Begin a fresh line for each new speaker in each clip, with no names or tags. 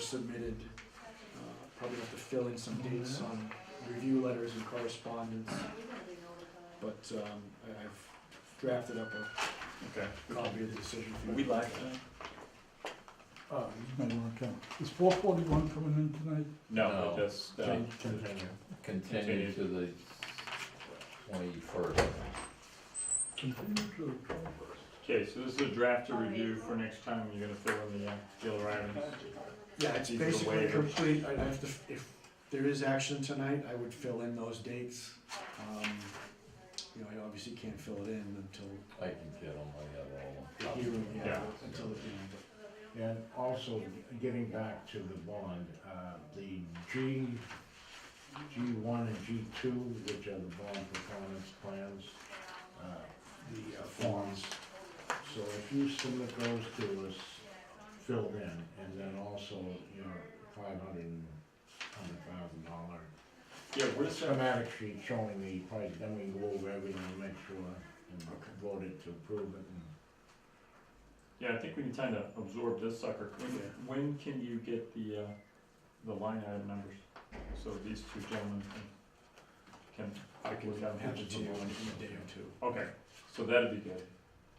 submitted. Uh, Probably have to fill in some dates on review letters and correspondence. But um, I- I've drafted up a
Okay.
copy of the decision for you.
We live tonight?
Uh, you may wanna come. Is four forty-one coming in tonight?
No,
No.
we just, uh,
Can- can-
Continue to the twenty-first.
Continue to the twenty-first.
okay, so this is a draft to review for next time, you're gonna fill in the, uh, Gil Rylands.
Yeah, it's
These are the
basically
waivers.
complete, I'd have to, if there is action tonight, I would fill in those dates. Um, You know, I obviously can't fill it in until
I can get them, I
the
got all of them.
hearing, yeah,
Yeah.
until the hearing, but
And also, getting back to the bond, uh, the G, G one and G two, which are the bond performance plans, uh, the uh, forms. So if you submit those to us, filled in, and then also your five hundred, hundred thousand dollar
Yeah, where's that?
schematic sheet showing the price, then we can go over everything and make sure, and vote it to approve it, and
Yeah, I think we need time to absorb this sucker.
Yeah.
When, when can you get the, uh, the line item numbers? So these two gentlemen can,
I
can
can have it to you in a day or two.
can, okay, so that'd be good.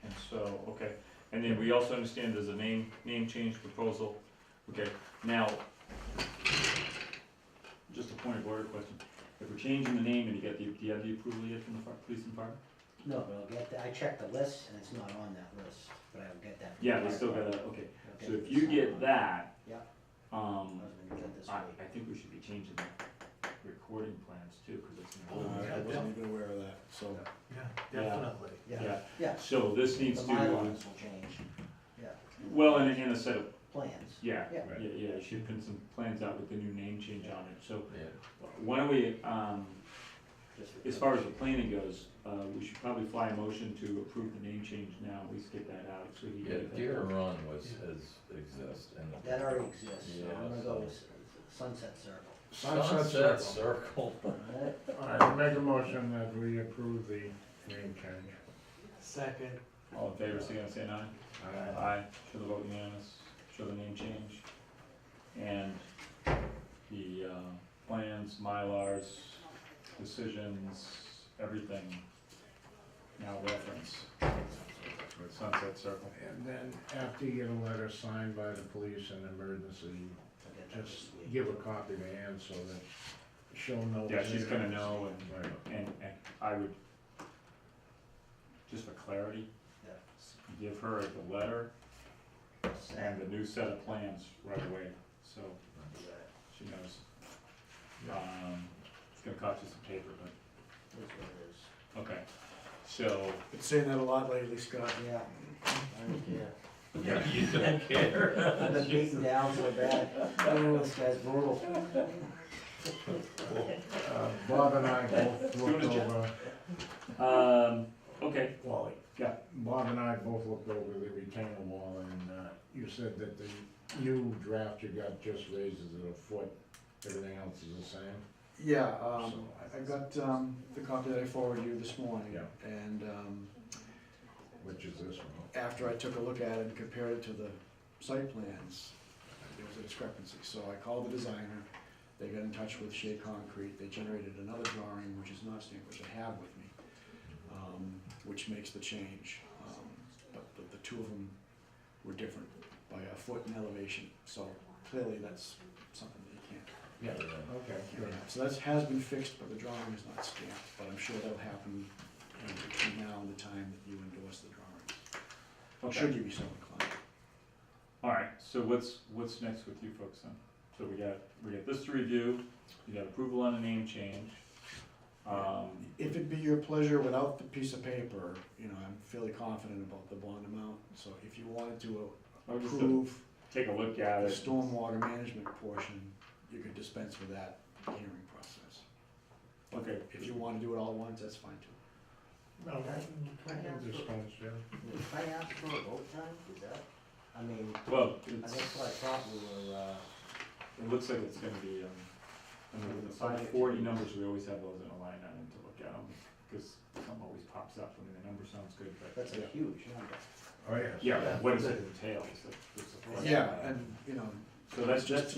And so, okay, and then we also understand there's a name, name change proposal. Okay, now, just a point of order question. If we're changing the name and you get the, do you have the approval yet from the fire- police and fire?
No, but I'll get, that- I checked the list and it's not on that list, but I will get that.
Yeah, they still gotta, okay,
Okay.
so if you get that.
Yeah. I
Um,
was gonna get this
I,
week.
I think we should be changing the recording plans too, cause it's an old.
Uh, I wasn't even aware of that, so.
Yeah.
Definitely.
Yeah, yeah.
So this needs
The my
to,
lines will change, yeah.
well, and, and a set of,
Plans.
yeah, yeah,
Yeah.
yeah, you should print some plans out with the new name change on it, so
Yeah.
why don't we, um,
just for-
as far as the planning goes, uh, we should probably fly a motion to approve the name change now, at least get that out, so he.
Yeah, Deer Run was, has exist and.
That already exists, so I'm
Yeah,
gonna
so-
go with Sunset Circle.
Sunset Circle.
I make a motion that we approve the name change.
Second.
All in favor, signify by saying aye.
Aye.
Aye, show the vote unanimous, show the name change, and the, uh, plans, Mylars, decisions, everything now reference Sunset Circle.
And then after you get a letter signed by the police and emergency,
I'll get that
just
this week.
give a copy to Ann so that she'll know.
Yeah, she's
what it
gonna
is.
know and-
Right.
And, and I would, just for clarity,
Yeah.
give her the letter and
Sam,
the new set of plans right away, so
do that.
she knows. Um, it's gonna cost you some paper, but,
That's what it is.
okay, so,
Been saying that a lot lately, Scott.
Yeah, I don't care.
Yeah, you don't care.
I've been beaten down so bad, oh, this guy's brutal.
Uh, Bob and I both looked
Doing a job.
over,
um, okay,
Wally.
Yeah.
Bob and I both looked over the retainer wall and, uh, you said that the new draft you got just raises it a foot, everything else is the same.
Yeah, um,
So I-
I got, um, the copy that I forwarded you this morning.
Yeah.
And, um,
Which is this one.
after I took a look at it and compared it to the site plans, there was a discrepancy, so I called the designer, they got in touch with Shea Concrete, they generated another drawing, which is not stamped, which I have with me, um, which makes the change, um, but, but the two of them were different by a foot in elevation, so clearly that's something that you can't,
Yeah, okay,
can't have. So that's, has been fixed, but the drawing is not stamped, but I'm sure that'll happen you know, between now and the time that you endorse the drawing. Should
okay,
you be so inclined?
alright, so what's, what's next with you folks then? So we got, we got this to review, you got approval on a name change, um,
If it be your pleasure, without the piece of paper, you know, I'm fairly confident about the bond amount, so if you wanted to
I would just
approve
take a look at
the
it.
stormwater management portion, you could dispense with that hearing process.
Okay.
If you wanna do it all at once, that's fine too.
No,
I can
dispense, yeah.
If I ask for a vote time, is that, I mean,
Well,
I
it's,
think what I thought we were, uh,
it looks like it's gonna be, um, I mean, with the five forty numbers, we always have those in a line item to look at them, cause something always pops up, I mean, the number sounds good, but.
that's a huge number.
Oh, yes.
Yeah, but what does it entail, is the- is the-
Yeah, and, you know,
So that's, that's,